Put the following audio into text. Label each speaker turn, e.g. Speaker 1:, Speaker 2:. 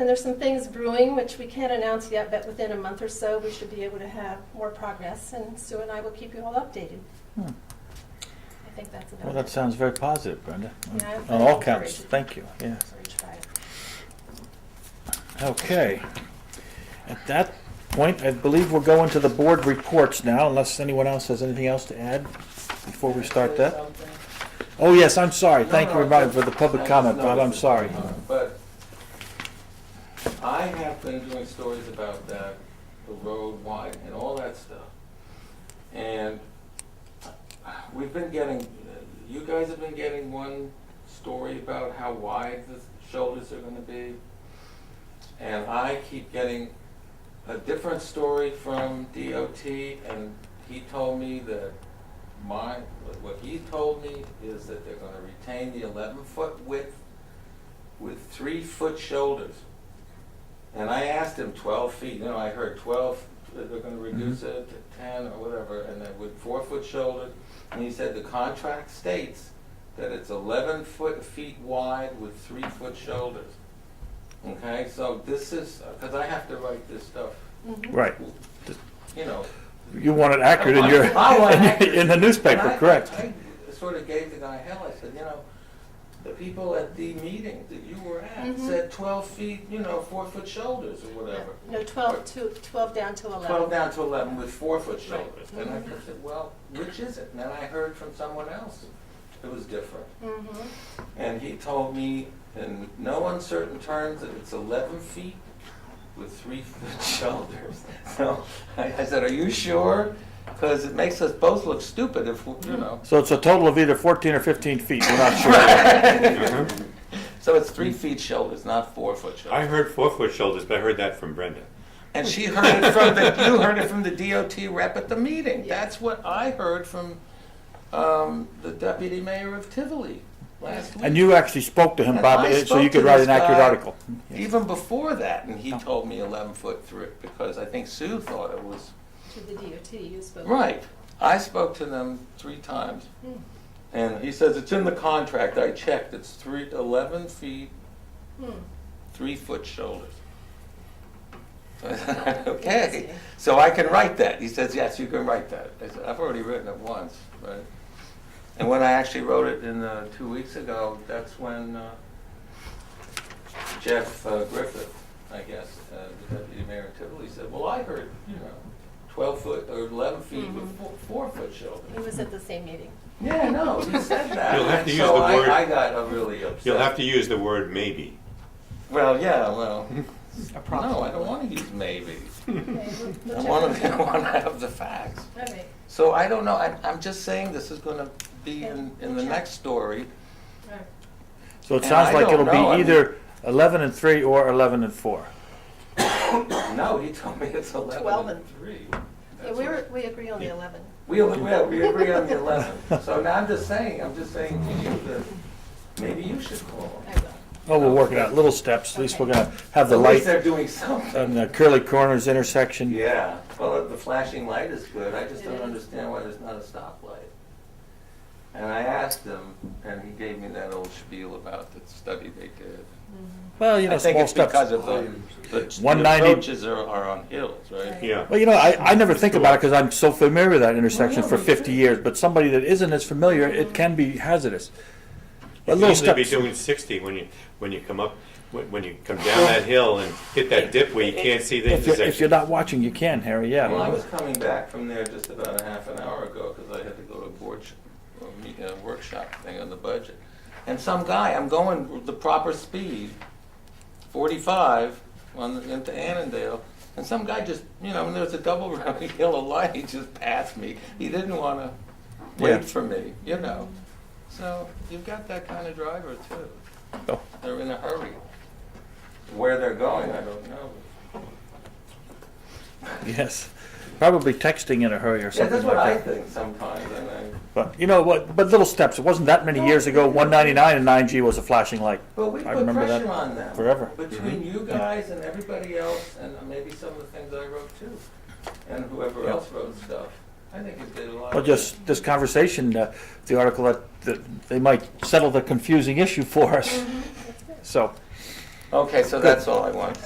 Speaker 1: And there's some things brewing, which we can't announce yet, but within a month or so, we should be able to have more progress, and Sue and I will keep you all updated.
Speaker 2: Hmm.
Speaker 1: I think that's about it.
Speaker 2: Well, that sounds very positive, Brenda. on-
Speaker 1: Yeah, I'm
Speaker 2: On all
Speaker 1: very
Speaker 2: counts,
Speaker 1: encouraged.
Speaker 2: thank you, yes.
Speaker 1: So we try it.
Speaker 2: Okay. At that point, I believe we're going to the board reports now, unless anyone else has anything else to add before we start that. Oh, yes, I'm sorry.
Speaker 3: No,
Speaker 2: Thank you,
Speaker 3: no,
Speaker 2: everybody,
Speaker 3: no.
Speaker 2: for the
Speaker 3: I
Speaker 2: public
Speaker 3: just
Speaker 2: comment, Bob, I'm
Speaker 3: noticed it.
Speaker 2: sorry.
Speaker 3: But I have been doing stories about that, the road wide and all that stuff. And we've been getting, you guys have been getting one story about how wide the shoulders are gonna be. And I keep getting a different story from DOT and he told me that my, what- what he told me is that they're gonna retain the eleven foot width with three foot shoulders. And I asked him twelve feet, you know, I heard twelve, that they're gonna reduce it to ten or whatever, and then with four foot shoulders. And he said the contract states that it's eleven foot, feet wide with three foot shoulders. Okay, so this is, cause I have to write this stuff,
Speaker 1: Mhm.
Speaker 2: Right.
Speaker 3: you know,
Speaker 2: You want it accurate in your,
Speaker 3: I want accurate.
Speaker 2: in the
Speaker 3: And
Speaker 2: newspaper,
Speaker 3: I-
Speaker 2: correct?
Speaker 3: I sort of gave the guy hell, I said, you know, the people at the meeting that you were at
Speaker 1: Mhm.
Speaker 3: said twelve feet, you know, four foot shoulders or whatever.
Speaker 1: No, 12 to, 12 down to 11.
Speaker 3: Twelve down to eleven with four foot shoulders.
Speaker 1: Right.
Speaker 3: And I
Speaker 1: Mhm.
Speaker 3: said, well, which is it? And then I heard from someone else, it was different.
Speaker 1: Mhm.
Speaker 3: And he told me in no uncertain terms that it's eleven feet with three foot shoulders. So I I said, are you sure? Because it makes us both look stupid if, we-
Speaker 1: Mm-hmm.
Speaker 3: you know.
Speaker 2: So it's a total of either 14 or 15 feet, we're not sure.
Speaker 3: So it's three feet shoulders, not four foot
Speaker 4: Uh-huh. I
Speaker 3: shoulders.
Speaker 4: heard four foot shoulders, but I heard that from Brenda.
Speaker 3: And she heard it from the, you heard it from the DOT rep at the meeting.
Speaker 1: Yeah.
Speaker 3: That's what I heard from um, the deputy mayor of Tivoli last week.
Speaker 2: And you actually spoke to him,
Speaker 3: And
Speaker 2: Bob,
Speaker 3: I
Speaker 2: eh, so
Speaker 3: spoke
Speaker 2: you
Speaker 3: to
Speaker 2: could write
Speaker 3: this
Speaker 2: an accurate
Speaker 3: guy.
Speaker 2: article.
Speaker 3: Even before that, and he
Speaker 2: Oh.
Speaker 3: told me eleven foot three, because I think Sue thought it was,
Speaker 1: To the DOT, you spoke.
Speaker 3: right. I spoke to them three times.
Speaker 1: Hmm.
Speaker 3: And he says, it's in the contract. I checked. It's three, eleven feet
Speaker 1: Hmm.
Speaker 3: three foot shoulders. okay, so I can write that. He says, yes, you can write that. I said, I've already written it once, right? And when I actually wrote it in uh, two weeks ago, that's when uh, Jeff uh, Griffith, I guess, uh, the deputy mayor of Tivoli, said, well, I heard, you know, 12 foot or 11 feet with
Speaker 1: Mhm.
Speaker 3: four, four foot
Speaker 1: He
Speaker 3: shoulders.
Speaker 1: was at the same meeting.
Speaker 3: Yeah, no, he said that.
Speaker 4: You'll have
Speaker 3: And
Speaker 4: to use
Speaker 3: so
Speaker 4: the
Speaker 3: I-
Speaker 4: word-
Speaker 3: I got uh, really upset.
Speaker 4: You'll have to use the word maybe.
Speaker 3: Well, yeah, well, no, I don't want to use maybe. I want to, I want to have the facts.
Speaker 1: All right.
Speaker 3: So I don't know, I, I'm just saying this is going to be in, in the
Speaker 1: Yeah.
Speaker 3: next story.
Speaker 1: All right.
Speaker 2: So it
Speaker 3: And
Speaker 2: sounds
Speaker 3: I
Speaker 2: like
Speaker 3: don't
Speaker 2: it'll
Speaker 3: know, I
Speaker 2: be
Speaker 3: mean-
Speaker 2: either 11 and 3 or 11 and 4.
Speaker 3: No, he told me it's
Speaker 1: Twelve
Speaker 3: eleven
Speaker 1: and-
Speaker 3: and three.
Speaker 1: Yeah,
Speaker 3: That's
Speaker 1: we were,
Speaker 3: what-
Speaker 1: we agree on the 11.
Speaker 3: We, only- well, we agree on the eleven. So now I'm just saying, I'm just saying to you that maybe you should call.
Speaker 1: I will.
Speaker 2: Oh, we'll work it out, little steps, at least we're gonna have the
Speaker 3: At least
Speaker 2: light
Speaker 3: they're doing something.
Speaker 2: on the Curly Corners intersection.
Speaker 3: Yeah, well, the flashing light is good, I just
Speaker 1: It
Speaker 3: don't
Speaker 1: is.
Speaker 3: understand why there's not a stoplight. And I asked him, and he gave me that old spiel about the study they did.
Speaker 2: Well, you
Speaker 3: I
Speaker 2: know,
Speaker 3: think
Speaker 2: small
Speaker 3: it's because
Speaker 2: steps.
Speaker 3: of the, the the
Speaker 2: 190
Speaker 3: approaches are, are on hills, right?
Speaker 4: Yeah.
Speaker 2: Well, you know, I, I never think about it because I'm so familiar with that intersection
Speaker 3: yeah,
Speaker 2: for
Speaker 3: me
Speaker 2: fifty
Speaker 3: too.
Speaker 2: years, but somebody that isn't as familiar, it can be hazardous. But
Speaker 4: You
Speaker 2: little
Speaker 4: usually be
Speaker 2: steps,
Speaker 4: doing sixty when you, when you come up, when when you come down that hill and hit that dip where you can't see the
Speaker 2: if you're, if you're
Speaker 4: intersection.
Speaker 2: not watching, you can, Harry,
Speaker 3: Well, I
Speaker 2: yeah.
Speaker 3: was coming back from there just about a half an hour ago, because I had to go to a board, sh- a meet- a workshop thing on the budget. And some guy, I'm going with the proper speed, forty-five, on, the- into Annandale, and some guy just, you know, and there was a double round yellow light, he just passed me. He didn't wanna
Speaker 2: Yeah.
Speaker 3: wait for me, you know? So, you've got that kind of driver too.
Speaker 2: Oh.
Speaker 3: They're in a hurry. Where they're going, I don't know.
Speaker 2: Yes, probably texting in a hurry or
Speaker 3: Yeah,
Speaker 2: something
Speaker 3: that's what I
Speaker 2: like that.
Speaker 3: think sometimes, and I.
Speaker 2: But, you know, what, but little steps, it wasn't that many years ago, one ninety-nine and nine G was a flashing light.
Speaker 3: But we
Speaker 2: I
Speaker 3: put
Speaker 2: remember that
Speaker 3: pressure on them.
Speaker 2: forever. Mm-hmm.
Speaker 3: Between you guys and everybody else, and uh, maybe some of the things I wrote too, and whoever
Speaker 2: Yeah.
Speaker 3: else wrote stuff. I think it did a lot.
Speaker 2: Well,
Speaker 3: of
Speaker 2: just this conversation, uh, the article that, that they might settle the confusing issue for us. So,
Speaker 3: Okay, so that's all I want.